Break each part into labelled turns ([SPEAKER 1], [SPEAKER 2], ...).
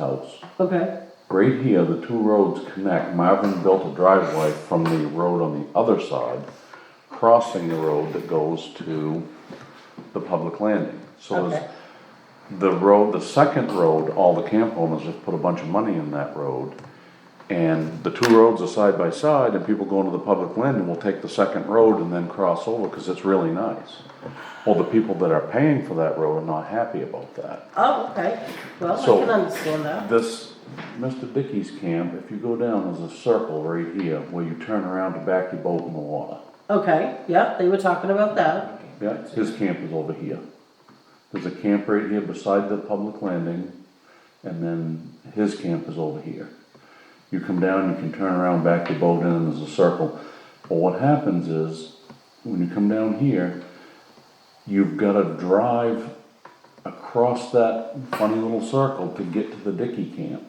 [SPEAKER 1] house.
[SPEAKER 2] Okay,
[SPEAKER 1] Right here, the two roads connect. Marvin built a driveway from the road on the other side, crossing the road that goes to the public landing. So
[SPEAKER 2] okay,
[SPEAKER 1] there's, the road, the second road, all the camp owners just put a bunch of money in that road. And the two roads are side by side and people going to the public landing will take the second road and then cross over because it's really nice. Well, the people that are paying for that road are not happy about that.
[SPEAKER 2] oh, okay, well, I
[SPEAKER 1] So-
[SPEAKER 2] can understand that,
[SPEAKER 1] This, Mr. Dickey's camp, if you go down, there's a circle right here where you turn around to back your boat in the water.
[SPEAKER 2] okay, yep, they were talking about that,
[SPEAKER 1] Yeah, his camp is over here. There's a camp right here beside the public landing, and then his camp is over here. You come down, you can turn around, back your boat in, and there's a circle. But what happens is, when you come down here, you've gotta drive across that funny little circle to get to the Dickey camp.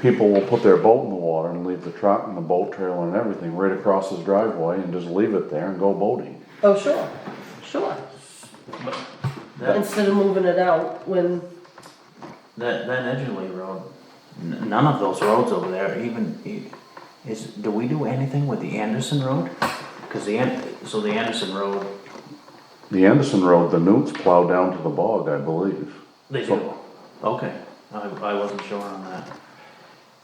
[SPEAKER 1] People will put their boat in the water and leave the truck and the boat trailer and everything right across his driveway and just leave it there and go boating.
[SPEAKER 2] oh, sure, sure.
[SPEAKER 3] That-
[SPEAKER 2] Instead of moving it out when,
[SPEAKER 3] That that Edgerly Road, n- none of those roads over there even e- is. Do we do anything with the Anderson Road? Because the An- so the Anderson Road,
[SPEAKER 1] The Anderson Road, the newts plow down to the bog, I believe.
[SPEAKER 3] they do. Okay, I, I wasn't sure on that.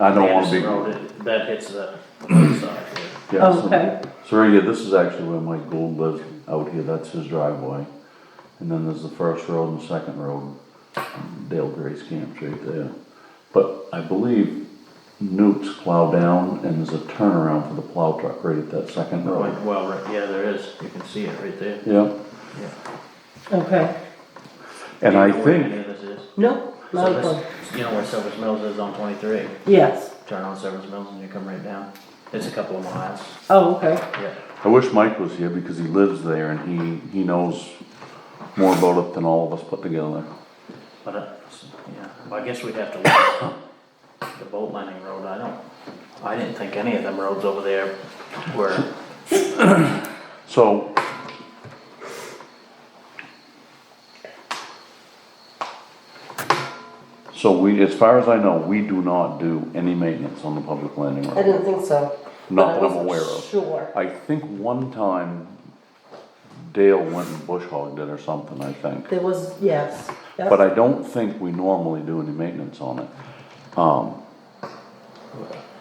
[SPEAKER 1] I don't wanna
[SPEAKER 3] Anderson
[SPEAKER 1] be.
[SPEAKER 3] Road, it- that hits the other side. there.
[SPEAKER 1] Yeah, so-
[SPEAKER 2] Okay.
[SPEAKER 1] So right here, this is actually where Mike Gould lives out here, that's his driveway. And then there's the first road and the second road, Dale Gray's camp right there. But I believe newts plow down and there's a turnaround for the plow truck right at that second road.
[SPEAKER 3] Right, Well, right, yeah, there is. You can see it right there.
[SPEAKER 1] Yeah,
[SPEAKER 3] Yeah.
[SPEAKER 2] okay,
[SPEAKER 1] and I
[SPEAKER 3] You know where
[SPEAKER 1] think,
[SPEAKER 3] any of this is?
[SPEAKER 2] no, not a
[SPEAKER 3] Silver's-
[SPEAKER 2] problem,
[SPEAKER 3] You know where Silver's Mills is on twenty three.
[SPEAKER 2] yes,
[SPEAKER 3] Turn on Silver's Mills and you come right down. It's a couple of miles.
[SPEAKER 2] oh, okay,
[SPEAKER 3] Yeah.
[SPEAKER 1] I wish Mike was here because he lives there and he, he knows more about it than all of us put together.
[SPEAKER 3] But, uh, yeah, well, I guess we'd have to look at the boat landing road, I don't, I didn't think any of them roads over there were,
[SPEAKER 1] So. So we, as far as I know, we do not do any maintenance on the public landing
[SPEAKER 2] I
[SPEAKER 1] road.
[SPEAKER 2] didn't think so.
[SPEAKER 1] Not
[SPEAKER 2] but I
[SPEAKER 1] that I'm
[SPEAKER 2] wasn't
[SPEAKER 1] aware of.
[SPEAKER 2] Sure,
[SPEAKER 1] I think one time Dale went and bush hogged it or something, I think.
[SPEAKER 2] there was, yes, yes.
[SPEAKER 1] But I don't think we normally do any maintenance on it. Um,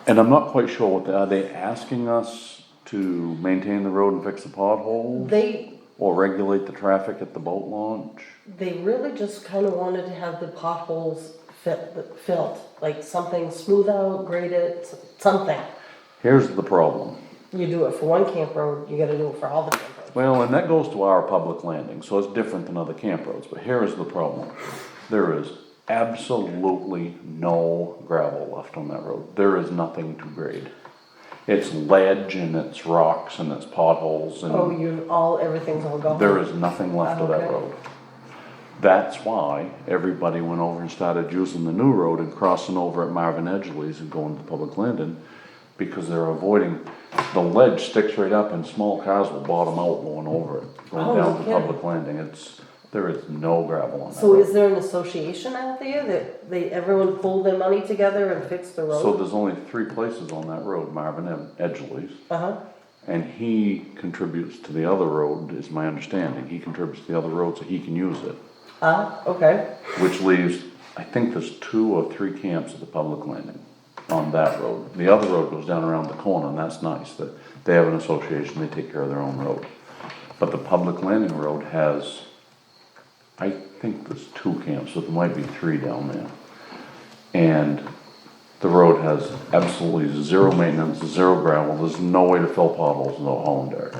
[SPEAKER 1] And I'm not quite sure what, they- are they asking us to maintain the road and fix the potholes?
[SPEAKER 2] They,
[SPEAKER 1] Or regulate the traffic at the boat launch?
[SPEAKER 2] they really just kinda wanted to have the potholes fit, filled, like something smooth out, graded, something.
[SPEAKER 1] Here's the problem.
[SPEAKER 2] You do it for one camp road, you gotta do it for all the camp roads.
[SPEAKER 1] Well, and that goes to our public landing, so it's different than other camp roads, but here is the problem. There is absolutely no gravel left on that road. There is nothing to grade. It's ledge and it's rocks and it's potholes and.
[SPEAKER 2] Oh, you're all, everything's all gone?
[SPEAKER 1] There is nothing left of that
[SPEAKER 2] Okay.
[SPEAKER 1] road. That's why everybody went over and started using the new road and crossing over at Marvin Edgley's and going to public landing because they're avoiding, the ledge sticks right up and small cars will bottom out going over it,
[SPEAKER 2] Oh,
[SPEAKER 1] going
[SPEAKER 2] no
[SPEAKER 1] down to
[SPEAKER 2] kidding.
[SPEAKER 1] public landing. It's, there is no gravel on that
[SPEAKER 2] So is
[SPEAKER 1] road.
[SPEAKER 2] there an association out there that they, everyone pull their money together and fix the
[SPEAKER 1] So
[SPEAKER 2] road?
[SPEAKER 1] there's only three places on that road, Marvin Ed- Edgley's.
[SPEAKER 2] Uh-huh,
[SPEAKER 1] And he contributes to the other road, is my understanding. He contributes to the other road so he can use it.
[SPEAKER 2] ah, okay,
[SPEAKER 1] which leaves, I think there's two or three camps at the public landing on that road. The other road goes down around the corner, and that's nice, that they have an association, they take care of their own road. But the public landing road has, I think there's two camps, but there might be three down there. And the road has absolutely zero maintenance, zero gravel, there's no way to fill potholes, no hauling dirt.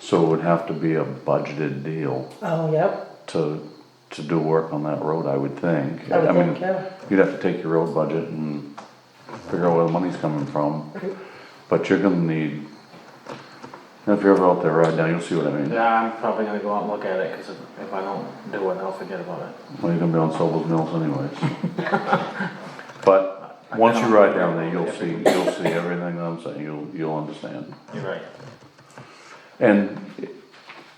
[SPEAKER 1] So it would have to be a budgeted deal
[SPEAKER 2] oh, yep,
[SPEAKER 1] to, to do work on that road, I would think.
[SPEAKER 2] I would
[SPEAKER 1] mean,
[SPEAKER 2] think, yeah.
[SPEAKER 1] You'd have to take your road budget and figure out where the money's coming from, but you're gonna need, if you're ever out there right now, you'll see what I mean.
[SPEAKER 3] yeah, I'm probably gonna go out and look at it, cause if if I don't do it, I'll forget about it.
[SPEAKER 1] Well, you're gonna be on Sobel's Mills anyways. But, once you ride down there, you'll see, you'll see everything I'm saying, you'll, you'll understand.
[SPEAKER 3] You're right.
[SPEAKER 1] And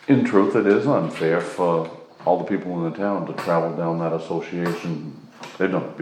[SPEAKER 1] in truth, it is unfair for all the people in the town to travel down that association. They don't,